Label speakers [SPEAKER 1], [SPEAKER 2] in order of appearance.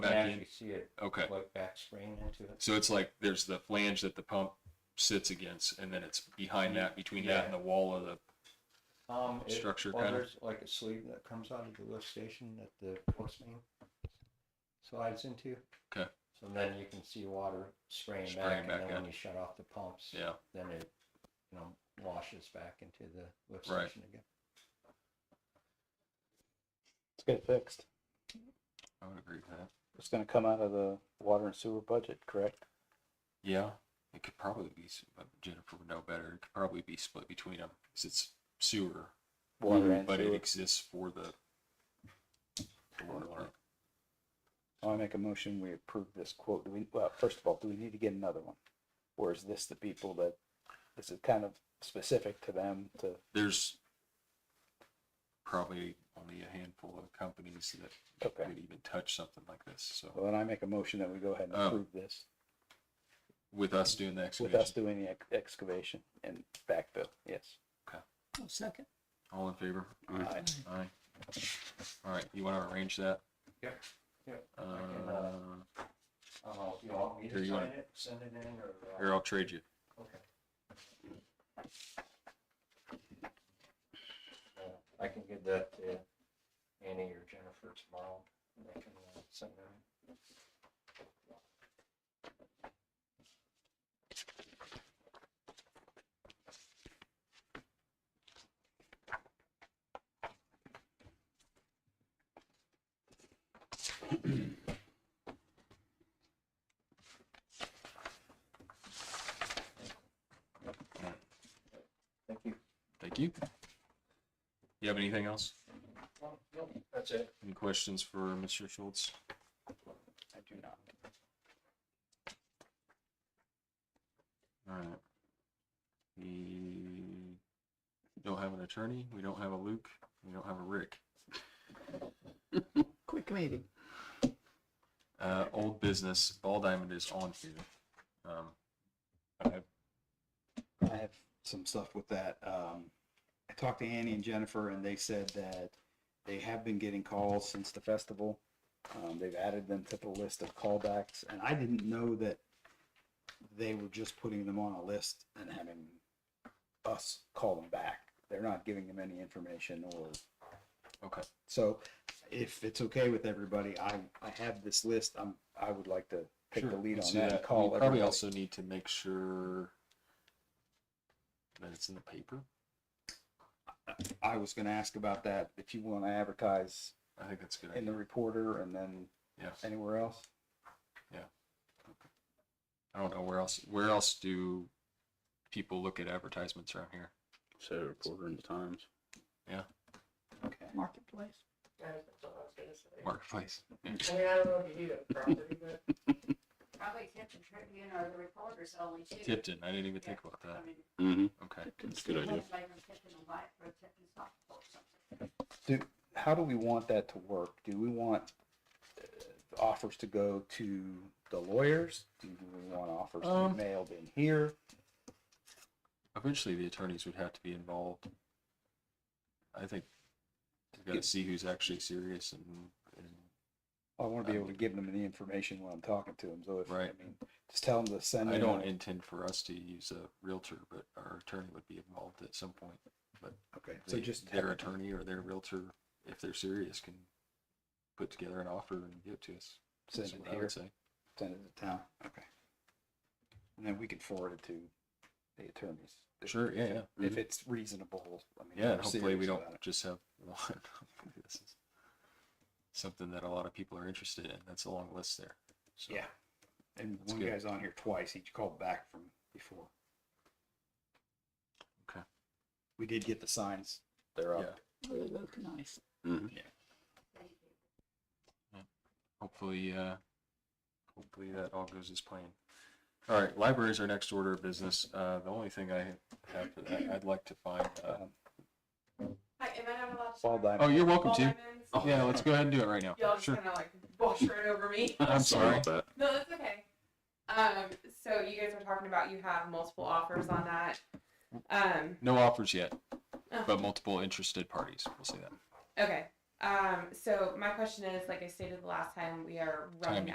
[SPEAKER 1] You can
[SPEAKER 2] back in?
[SPEAKER 1] actually see it,
[SPEAKER 2] Okay.
[SPEAKER 1] like back spraying into it.
[SPEAKER 2] So it's like there's the flange that the pump sits against, and then it's behind that, between that and the wall of the.
[SPEAKER 1] Um, it-
[SPEAKER 2] Structure
[SPEAKER 1] well,
[SPEAKER 2] kinda?
[SPEAKER 1] there's like a sleeve that comes out of the lift station that the force main slides into.
[SPEAKER 2] 'Kay.
[SPEAKER 1] So then you can see water spraying, back,
[SPEAKER 2] Spraying back
[SPEAKER 1] and then
[SPEAKER 2] in.
[SPEAKER 1] when you shut off the pumps,
[SPEAKER 2] Yeah.
[SPEAKER 1] then it, you know, washes back into the lift
[SPEAKER 2] Right.
[SPEAKER 1] station again.
[SPEAKER 3] Let's get it fixed.
[SPEAKER 2] I would agree with that.
[SPEAKER 3] It's gonna come out of the water and sewer budget, correct?
[SPEAKER 2] Yeah, it could probably be. s- but Jennifer would know better. It could probably be split between them because it's sewer,
[SPEAKER 3] Water and
[SPEAKER 2] Mm-hmm. but it
[SPEAKER 3] sewer.
[SPEAKER 2] exists for the. the water line.
[SPEAKER 3] I make a motion, we approve this quote. Do we, well, first of all, do we need to get another one? Or is this the people that, this is kind of specific to them to,
[SPEAKER 2] There's probably only a handful of companies that
[SPEAKER 3] okay.
[SPEAKER 2] could even touch something like this. So
[SPEAKER 3] Well, then I make a motion that we go ahead and
[SPEAKER 2] Oh.
[SPEAKER 3] approve this
[SPEAKER 2] with us doing the
[SPEAKER 3] with
[SPEAKER 2] excavation,
[SPEAKER 3] us doing the ex- excavation and backfill, yes.
[SPEAKER 4] second.
[SPEAKER 2] all in favor?
[SPEAKER 3] Aye.
[SPEAKER 2] Aye. All right, you want to arrange that?
[SPEAKER 1] Yep, yep, can, uh,
[SPEAKER 2] Uh,
[SPEAKER 1] I don't know if you want me
[SPEAKER 2] Here,
[SPEAKER 1] to
[SPEAKER 2] you
[SPEAKER 1] sign
[SPEAKER 2] wanna-
[SPEAKER 1] it, send it in, or,
[SPEAKER 2] Here,
[SPEAKER 1] uh,
[SPEAKER 2] I'll trade you.
[SPEAKER 1] okay. Uh, I can give that to Annie or Jennifer tomorrow, and they can uh, send it in. Thank you.
[SPEAKER 2] Thank you. You have anything else?
[SPEAKER 1] Well, no, That's it.
[SPEAKER 2] Any questions for Mr. Schultz?
[SPEAKER 3] I do not.
[SPEAKER 2] All right. We don't have an attorney. We don't have a Luke. We don't have a Rick.
[SPEAKER 4] Quick meeting.
[SPEAKER 2] Uh, old business, Ball Diamond is on here. Um, I have
[SPEAKER 3] I have some stuff with that. Um, I talked to Annie and Jennifer, and they said that they have been getting calls since the festival. Um, they've added them to the list of callbacks, and I didn't know that they were just putting them on a list and having us call them back. They're not giving them any information or.
[SPEAKER 2] Okay.
[SPEAKER 3] So if it's okay with everybody, I, I have this list. I'm, I would like to take the
[SPEAKER 2] Sure,
[SPEAKER 3] lead
[SPEAKER 2] let's
[SPEAKER 3] on
[SPEAKER 2] do
[SPEAKER 3] that and call
[SPEAKER 2] We
[SPEAKER 3] everybody.
[SPEAKER 2] probably also need to make sure that it's in the paper.
[SPEAKER 3] I was gonna ask about that, if you wanna advertise
[SPEAKER 2] I think that's a good.
[SPEAKER 3] in
[SPEAKER 2] idea.
[SPEAKER 3] the reporter and then
[SPEAKER 2] Yeah.
[SPEAKER 3] anywhere else.
[SPEAKER 2] I don't know where else. Where else do people look at advertisements around here?
[SPEAKER 5] Saturday Reporter and the Times.
[SPEAKER 3] Okay.
[SPEAKER 4] Marketplace.
[SPEAKER 6] That's all I was gonna say.
[SPEAKER 2] Marketplace.
[SPEAKER 6] I mean, I don't know if you need a property, but
[SPEAKER 7] Probably Tipton Tribune or the Reporter's only two.
[SPEAKER 2] Tipton. I didn't even think about
[SPEAKER 7] I
[SPEAKER 2] that.
[SPEAKER 7] mean,
[SPEAKER 5] Mm-hmm.
[SPEAKER 2] Okay.
[SPEAKER 5] That's a good idea.
[SPEAKER 7] it's like from Tipton and White or Tipton Softball or something.
[SPEAKER 3] How do we want that to work? Do we want uh, offers to go to the lawyers? Do we want offers to
[SPEAKER 2] Um,
[SPEAKER 3] be mailed in here?
[SPEAKER 2] Eventually, the attorneys would have to be involved. I think we've got to see who's actually serious and, and
[SPEAKER 3] I wanna be able to give them the information when I'm talking to them, so if, I
[SPEAKER 2] Um, Right.
[SPEAKER 3] mean, just tell them to send
[SPEAKER 2] I
[SPEAKER 3] in
[SPEAKER 2] don't
[SPEAKER 3] a-
[SPEAKER 2] intend for us to use a realtor, but our attorney would be involved at some point.
[SPEAKER 3] Okay, so
[SPEAKER 2] They-
[SPEAKER 3] just.
[SPEAKER 2] their attorney or their realtor, if they're serious, can put together an offer and give it to us.
[SPEAKER 3] Send
[SPEAKER 2] That's
[SPEAKER 3] it
[SPEAKER 2] what I
[SPEAKER 3] here.
[SPEAKER 2] would say.
[SPEAKER 3] Send it to town, okay. And then we can forward it to the attorneys. if-
[SPEAKER 2] Sure, yeah, yeah.
[SPEAKER 3] If it's reasonable, I mean.
[SPEAKER 2] Mm-hmm. Yeah,
[SPEAKER 3] we're
[SPEAKER 2] and hopefully we
[SPEAKER 3] serious
[SPEAKER 2] don't
[SPEAKER 3] about it.
[SPEAKER 2] just have one. This is Something that a lot of people are interested in. That's a long list there. So,
[SPEAKER 3] Yeah. And
[SPEAKER 2] That's
[SPEAKER 3] one
[SPEAKER 2] good.
[SPEAKER 3] guy's on here twice. He called back from before.
[SPEAKER 2] Okay.
[SPEAKER 3] We did get the signs. They're
[SPEAKER 2] Yeah.
[SPEAKER 3] up.
[SPEAKER 4] Oh, they look nice.
[SPEAKER 2] Hopefully, uh, hopefully that all goes as planned. All right, libraries are next order of business. Uh, the only thing I have, for that, I'd like to find, uh,
[SPEAKER 3] Um,
[SPEAKER 6] I, am I not allowed to?
[SPEAKER 3] Ball
[SPEAKER 6] start?
[SPEAKER 3] diamond.
[SPEAKER 2] oh, you're welcome
[SPEAKER 6] Ball
[SPEAKER 2] to.
[SPEAKER 6] diamonds?
[SPEAKER 2] Oh, Yeah, let's go ahead and do it right now.
[SPEAKER 6] Y'all just
[SPEAKER 2] Sure.
[SPEAKER 6] kind of like wash right over me.
[SPEAKER 2] I'm sorry.
[SPEAKER 5] about that.
[SPEAKER 6] No, that's okay. Um, so you guys were talking about you have multiple offers on that. Um,
[SPEAKER 2] No offers yet,
[SPEAKER 6] Oh.
[SPEAKER 2] but multiple interested parties. We'll say that.
[SPEAKER 6] okay. Um, so my question is, like I stated the last time, we are running
[SPEAKER 2] Timing.